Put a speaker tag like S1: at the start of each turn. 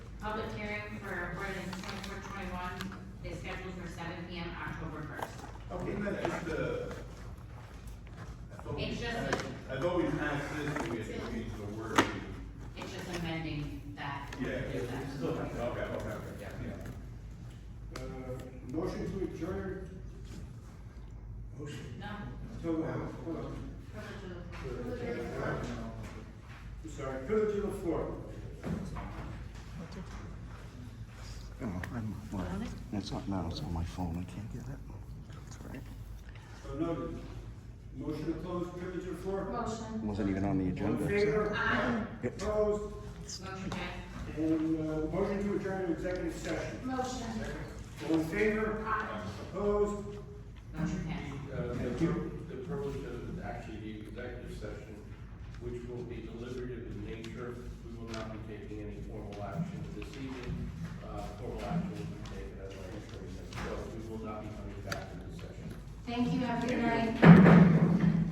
S1: Isn't that just the? I thought we
S2: It's just
S1: passed- I thought we passed this, and we had to change the word. to-
S2: It's just amending that.
S1: Yeah.
S2: That.
S1: Okay, okay, okay.
S3: Yeah.
S4: Uh, Motion to adjourn
S2: No.
S4: till, uh, hold on. I'm sorry, privilege of the floor.
S5: No, Oh, I'm, well, it's not, no, it's on my phone, I can't get it. That's all right.
S4: So noted. Oh, Motion to close privilege of the floor.
S2: Motion.
S5: Wasn't even on the
S4: All
S5: agenda.
S4: in
S5: so-
S4: favor?
S2: Aye.
S4: Opposed?
S2: Motion passed.
S4: And, uh, motion to adjourn to executive session.
S2: Motion.
S4: All in favor? Opposed?
S2: Motion passed.
S6: Uh, The
S4: Thank
S6: pur-
S4: you.
S6: the purpose of actually the executive session, which will be deliberative in nature, we will not be taking any formal action this evening. Uh, Formal action will be taken at our next meeting, so we will not be coming back to this session.
S2: Thank you, have a good night.